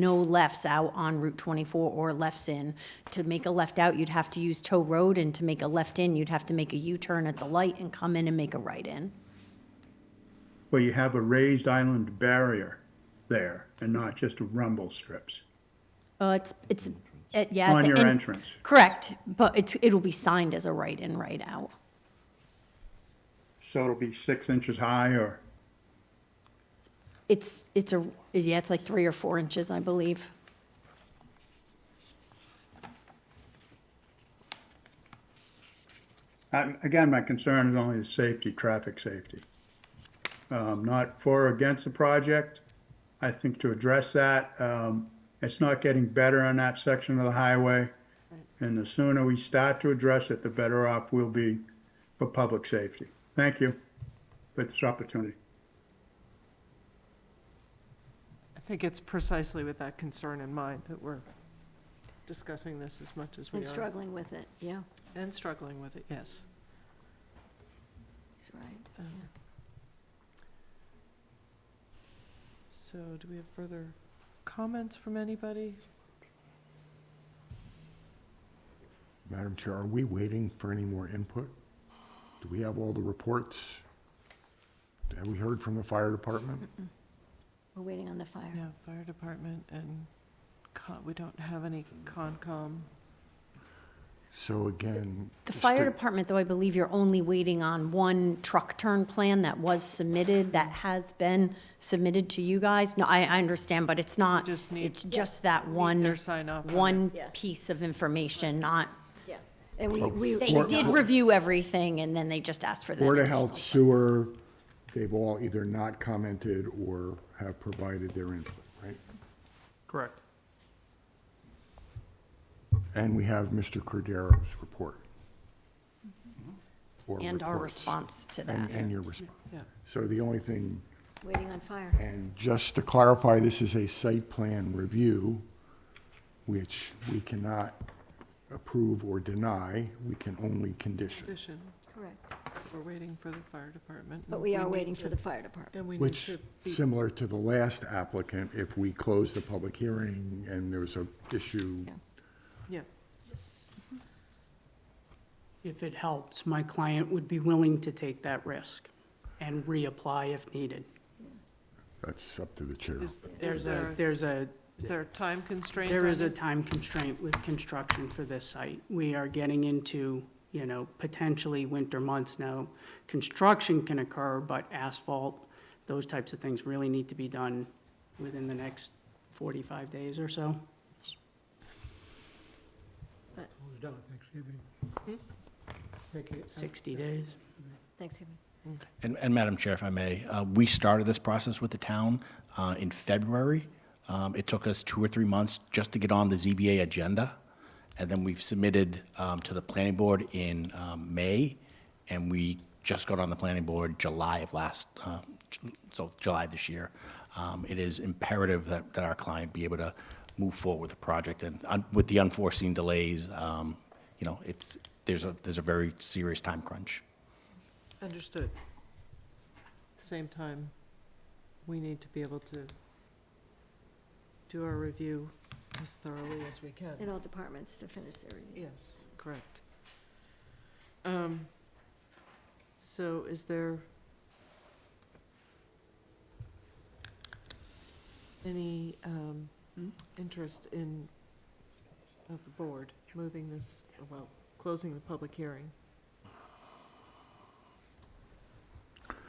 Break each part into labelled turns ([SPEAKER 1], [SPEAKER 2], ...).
[SPEAKER 1] no lefts out on Route 24 or lefts in. To make a left out, you'd have to use tow road, and to make a left in, you'd have to make a U-turn at the light and come in and make a right in.
[SPEAKER 2] where you have a raised island barrier there and not just rumble strips
[SPEAKER 1] Uh, it's, it's, uh, yeah.
[SPEAKER 2] on
[SPEAKER 1] the-
[SPEAKER 2] your
[SPEAKER 1] and-
[SPEAKER 2] entrance.
[SPEAKER 1] Correct, but it's, it'll be signed as a right in, right out.
[SPEAKER 2] So it'll be six inches high or,
[SPEAKER 1] It's, it's a, yeah, it's like three or four inches, I believe.
[SPEAKER 2] I'm- again, my concern is only the safety, traffic safety. Um, not for or against the project. I think to address that, um, it's not getting better on that section of the highway. And the sooner we start to address it, the better off we'll be for public safety. Thank you for this opportunity.
[SPEAKER 3] I think it's precisely with that concern in mind that we're discussing this as much as we
[SPEAKER 4] And
[SPEAKER 3] are.
[SPEAKER 4] struggling with it, yeah,
[SPEAKER 3] And struggling with it, yes.
[SPEAKER 4] that's right.
[SPEAKER 3] Um, So do we have further comments from anybody?
[SPEAKER 5] Madam Chair, are we waiting for any more input? Do we have all the reports? Have we heard from the fire department?
[SPEAKER 4] We're waiting on the fire.
[SPEAKER 3] Yeah, fire department and con, we don't have any Concom.
[SPEAKER 5] So again.
[SPEAKER 1] The
[SPEAKER 5] just
[SPEAKER 1] fire
[SPEAKER 5] to-
[SPEAKER 1] department, though, I believe you're only waiting on one truck turn plan that was submitted, that has been submitted to you guys. No, I, I understand, but it's not,
[SPEAKER 3] Just need-
[SPEAKER 1] it's just that
[SPEAKER 3] Their
[SPEAKER 1] one,
[SPEAKER 3] sign off on it.
[SPEAKER 1] one
[SPEAKER 4] Yeah.
[SPEAKER 1] piece of information, not,
[SPEAKER 4] Yeah, and we, we.
[SPEAKER 1] they
[SPEAKER 4] we-
[SPEAKER 1] did review everything and then they just asked for that.
[SPEAKER 5] Board of
[SPEAKER 1] additional-
[SPEAKER 5] Health, sewer, they've all either not commented or have provided their input, right?
[SPEAKER 6] Correct.
[SPEAKER 5] And we have Mr. Cordero's report. Or
[SPEAKER 1] And our
[SPEAKER 5] reports.
[SPEAKER 1] response to
[SPEAKER 5] And,
[SPEAKER 1] that.
[SPEAKER 5] and your response.
[SPEAKER 3] Yeah.
[SPEAKER 5] So the only thing
[SPEAKER 4] Waiting on fire.
[SPEAKER 5] And just to clarify, this is a site plan review, which we cannot approve or deny, we can only condition.
[SPEAKER 3] Addition,
[SPEAKER 4] Correct,
[SPEAKER 3] we're waiting for the fire department.
[SPEAKER 4] but
[SPEAKER 3] and
[SPEAKER 4] we are
[SPEAKER 3] need
[SPEAKER 4] waiting for
[SPEAKER 3] to-
[SPEAKER 4] the fire department.
[SPEAKER 3] And we need
[SPEAKER 5] Which,
[SPEAKER 3] to be
[SPEAKER 5] similar to the last applicant, if we close the public hearing and there was a issue,
[SPEAKER 4] Yeah.
[SPEAKER 3] Yeah,
[SPEAKER 6] If it helps, my client would be willing to take that risk and reapply if needed.
[SPEAKER 5] that's up to the chair.
[SPEAKER 3] is, is
[SPEAKER 6] There's a,
[SPEAKER 3] there,
[SPEAKER 6] there's a,
[SPEAKER 3] is there a time constraint?
[SPEAKER 6] there
[SPEAKER 3] on
[SPEAKER 6] is a
[SPEAKER 3] it?
[SPEAKER 6] time constraint with construction for this site. We are getting into, you know, potentially winter months now. Construction can occur, but asphalt, those types of things really need to be done within the next 45 days or so.
[SPEAKER 7] Who's done at Thanksgiving?
[SPEAKER 3] Hmm?
[SPEAKER 7] Thank you.
[SPEAKER 6] 60 days.
[SPEAKER 4] Thanksgiving.
[SPEAKER 8] And, and Madam Chair, if I may, uh, we started this process with the town uh, in February. Um, It took us two or three months just to get on the ZBA agenda, and then we've submitted um, to the planning board in um, May, and we just got on the planning board July of last, uh, Ju- so July this year. Um, It is imperative that, that our client be able to move forward with the project, and um, with the unforeseen delays, um, you know, it's, there's a, there's a very serious time crunch.
[SPEAKER 3] Understood. Same time, we need to be able to do our review as thoroughly as we
[SPEAKER 4] And
[SPEAKER 3] can.
[SPEAKER 4] all departments to finish their review.
[SPEAKER 3] Yes, correct. Um, So is there any um,
[SPEAKER 6] Hmm?
[SPEAKER 3] interest in, of the board, moving this, well, closing the public hearing?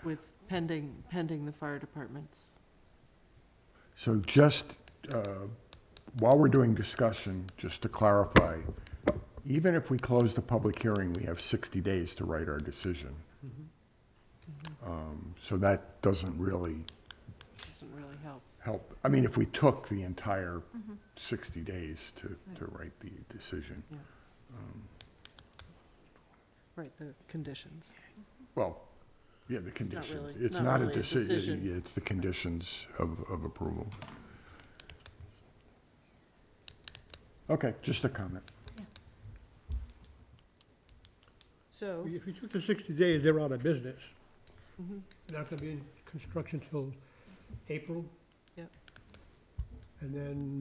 [SPEAKER 3] With pending, pending the fire department's
[SPEAKER 5] So just, uh, while we're doing discussion, just to clarify, even if we close the public hearing, we have 60 days to write our decision.
[SPEAKER 3] Mm-hmm.
[SPEAKER 5] Um, So that doesn't really
[SPEAKER 3] doesn't really help.
[SPEAKER 5] help. I mean, if we took the entire
[SPEAKER 3] Mm-hmm.
[SPEAKER 5] 60 days to, to write the decision,
[SPEAKER 3] Right, the conditions.
[SPEAKER 5] well, yeah, the conditions.
[SPEAKER 3] really-
[SPEAKER 5] It's
[SPEAKER 3] not
[SPEAKER 5] not a
[SPEAKER 3] really a decision.
[SPEAKER 5] decision, it's the conditions of, of approval. Okay, just a comment.
[SPEAKER 3] So, Mm-hmm.
[SPEAKER 7] If you took the 60 days, they're out of business. They're Not going to be in construction till April.
[SPEAKER 3] Yep.
[SPEAKER 7] And then